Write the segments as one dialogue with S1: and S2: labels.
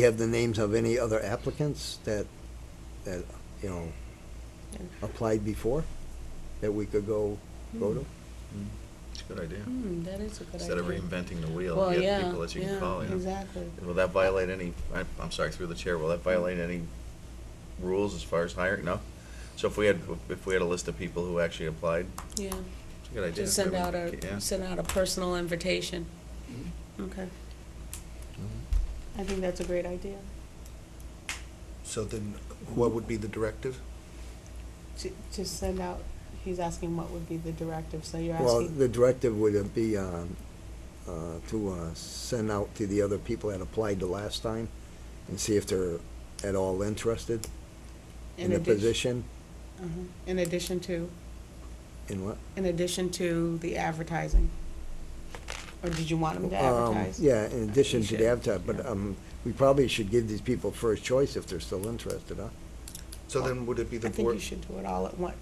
S1: you have the names of any other applicants that, that, you know, applied before that we could go,
S2: Hmm.
S1: go to?
S3: It's a good idea.
S4: Hmm, that is a good idea.
S3: Instead of reinventing the wheel,
S4: Well,
S3: you
S4: yeah,
S3: have people that you
S4: yeah,
S3: can call, you know.
S4: Exactly.
S3: And Will that violate any, I- I'm sorry, through the chair, will that violate any rules as far as hiring? No? So if we had, if we had a list of people who actually applied,
S4: Yeah,
S3: it's a good idea.
S4: just send
S3: We
S4: out
S3: would- yeah. Mm-hmm.
S4: a, send out a personal invitation. Okay.
S2: I think that's a great idea.
S5: So then, what would be the directive?
S2: To, to send out, he's asking what would be the directive, so you're
S1: Well,
S2: asking.
S1: the directive would be, um, uh, to, uh, send out to the other people that applied the last time and see if they're at all interested in the
S2: addition-
S1: position,
S2: uh-huh, In addition to,
S1: in what?
S2: in addition to the advertising? Or did you want him to
S1: Um,
S2: advertise?
S1: Yeah, in addition
S3: You
S1: to
S3: should,
S1: the advertising, but,
S3: yeah.
S1: um, we probably should give these people first choice if they're still interested, huh?
S5: So then, would it be
S2: I
S5: the
S2: think
S5: board?
S2: you should do it all at once,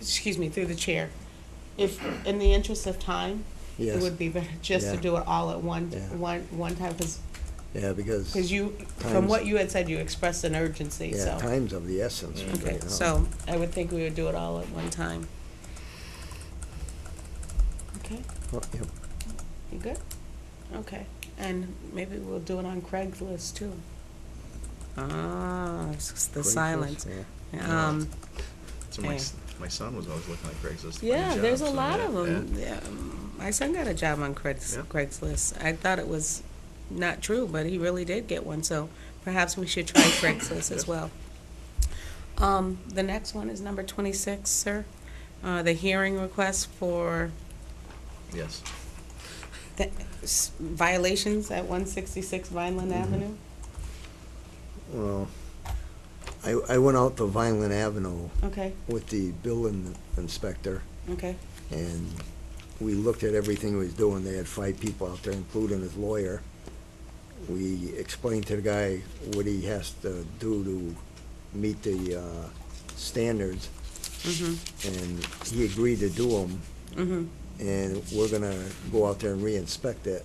S2: excuse me, through the chair. If, in the interest of time, it
S1: Yes,
S2: would be better just to
S1: Yeah.
S2: do it all at one,
S1: Yeah.
S2: one, one time, because,
S1: yeah, because,
S2: you, from
S1: Times-
S2: what you had said, you expressed an urgency, so.
S1: yeah, time's of the essence.
S2: Okay,
S1: right now. Oh,
S2: so I would think we would do it all at one time. Okay,
S1: Oh, yep.
S2: you good? Okay, and maybe we'll do it on Craigslist too. Ah, it's just the
S1: Craigslist,
S2: silence.
S1: yeah.
S2: Um,
S3: So my, s- my son was always looking at Craigslist. to find
S2: yeah, there's a
S3: jobs, so
S2: lot
S3: yeah,
S2: of them. Yeah, um, my son got a job on Craigs-
S3: Yeah.
S2: Craigslist. I thought it was not true, but he really did get one, so perhaps we should try Craigslist as
S3: Yeah.
S2: well. Um, the next one is number twenty-six, sir. Uh, the hearing request for
S3: yeah. Yes.
S2: the s- violations at one sixty-six Vineland Avenue.
S1: Well, I, I went out to Vineland Avenue
S2: Okay,
S1: with the building inspector,
S2: okay,
S1: and we looked at everything he was doing. They had five people out there, including his lawyer. We explained to the guy what he has to do to meet the, uh, standards,
S2: mhm,
S1: and he agreed to do them,
S2: mhm,
S1: and we're gonna go out there and re-inspect it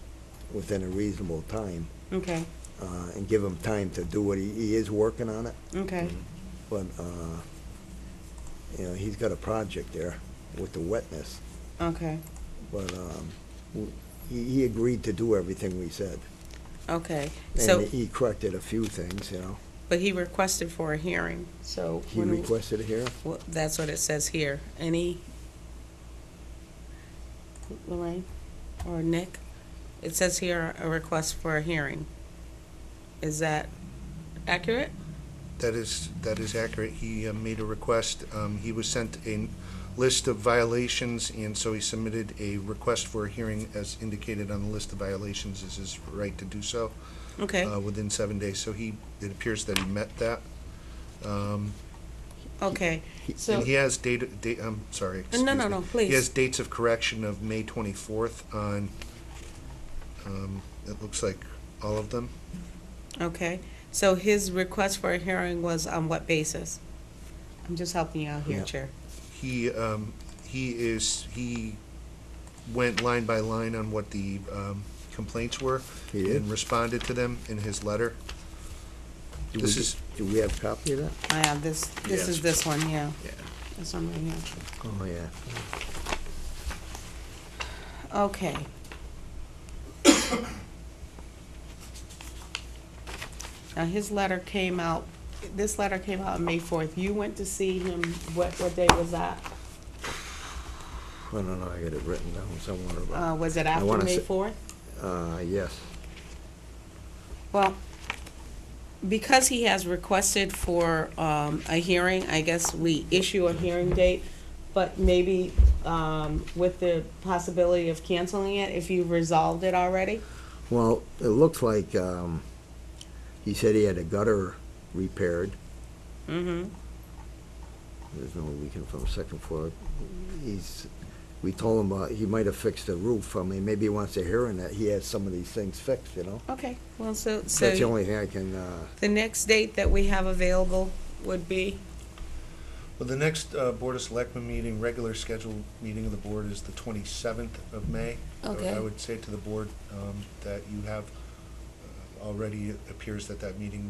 S1: within a reasonable time,
S2: okay,
S1: uh, and give him time to do what he, he is working on it.
S2: okay,
S3: Mhm.
S1: But, uh, you know, he's got a project there with the wetness,
S2: okay,
S1: but, um, w- he, he agreed to do everything we said.
S2: okay. So,
S1: And he corrected a few things, you know.
S2: but he requested for a hearing, so.
S1: He
S2: when we-
S1: requested a hearing.
S2: Well, that's what it says here. Any? Lorraine or Nick? It says here a request for a hearing. Is that accurate?
S5: That is, that is accurate. He uh, made a request. Um, He was sent a list of violations, and so he submitted a request for a hearing as indicated on the list of violations is his right to do so
S2: Okay,
S5: uh, within seven days. So he, it appears that he met that. Um,
S2: okay. So,
S5: And he has data, da- I'm sorry.
S2: No, no,
S5: excuse
S2: no,
S5: me.
S2: please.
S5: He has dates of correction of May 24th on, um, it looks like all of them.
S2: okay. So his request for a hearing was on what basis? I'm just helping you out here,
S1: Yeah.
S2: Chair.
S5: He, um, he is, he went line by line on what the, um, complaints were
S1: He did?
S5: and responded to them in his letter.
S1: Do
S5: This
S1: we-
S5: is-
S1: Do we have a copy of that?
S2: I have uh, this, this is
S3: Yes.
S2: this one, yeah.
S3: Yeah.
S2: This one right here.
S1: Oh, yeah.
S2: Okay. Now, his letter came out, this letter came out on May fourth. You went to see him, what, what day was that?
S1: I don't know, I got it written down somewhere,
S2: Uh, was it after
S1: wanna
S2: May
S1: say-
S2: fourth?
S1: but, uh, yes.
S2: Well, because he has requested for, um, a hearing, I guess we issue a hearing date, but maybe, um, with the possibility of canceling it if you resolved it already?
S1: Well, it looks like, um, he said he had a gutter repaired.
S2: Mm-hmm.
S1: There's no leaking from the second floor. He's, we told him, uh, he might have fixed the roof, I mean, maybe he wants to hear in that he has some of these things fixed, you know?
S2: Okay, well, so, so.
S1: That's the only thing I can, uh,
S2: The next date that we have available would be,
S5: Well, the next, uh, Board of Selectmen meeting, regular scheduled meeting of the board is the 27th of May. I-
S4: Okay.
S5: I would say to the board, um, that you have, uh, already appears that that meeting